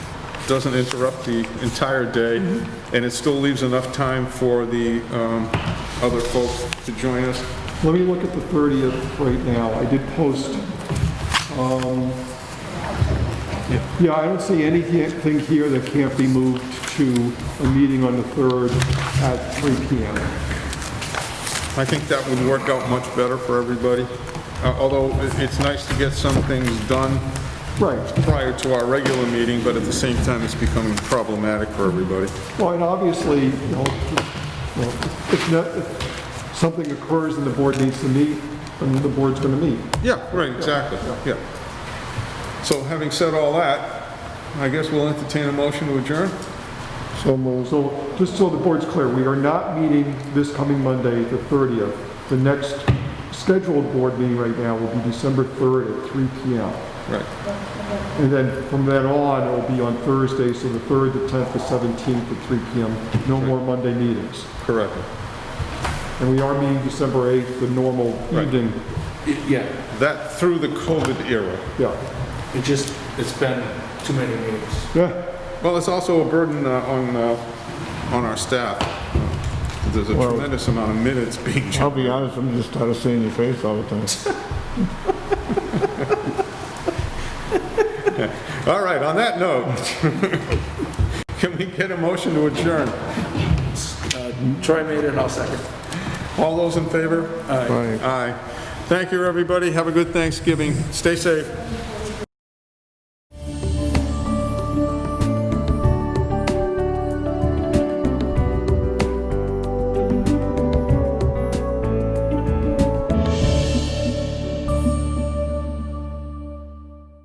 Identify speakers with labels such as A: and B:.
A: doesn't interrupt the entire day, and it still leaves enough time for the um, other folks to join us.
B: Let me look at the 30th right now. I did post, um, yeah, I don't see anything here that can't be moved to a meeting on the 3rd at 3 PM.
A: I think that would work out much better for everybody, Uh, although it- it's nice to get some things done
B: Right.
A: prior to our regular meeting, but at the same time, it's becoming problematic for everybody.
B: Well, and obviously, you know, you know, if not- if something occurs and the board needs to meet, then the board's going to meet.
A: Yeah, right, exactly, yeah. So having said all that, I guess we'll entertain a motion to adjourn?
B: So So just so the board's clear, we are not meeting this coming Monday, the 30th. The next scheduled board meeting right now will be December 3rd at 3 PM.
A: Right.
B: And then from then on, it will be on Thursday, so the 3rd, the 10th, the 17th at 3 PM. No more Monday meetings.
A: Correct.
B: And we are meeting December 8th, the normal
A: Right.
B: evening.
C: It- Yeah,
A: That through the COVID era.
B: Yeah.
C: it just, it's been too many meetings.
B: Yeah.
A: Well, it's also a burden uh, on, uh, on our staff. There's a tremendous amount of minutes being
D: I'll
A: generated.
D: be honest, I'm just tired of seeing your face all the time.
A: All right, on that note, can we get a motion to adjourn?
C: Troy made it, I'll second.
A: All those in favor?
D: Right.
A: Aye. Thank you, everybody. Have a good Thanksgiving. Stay safe.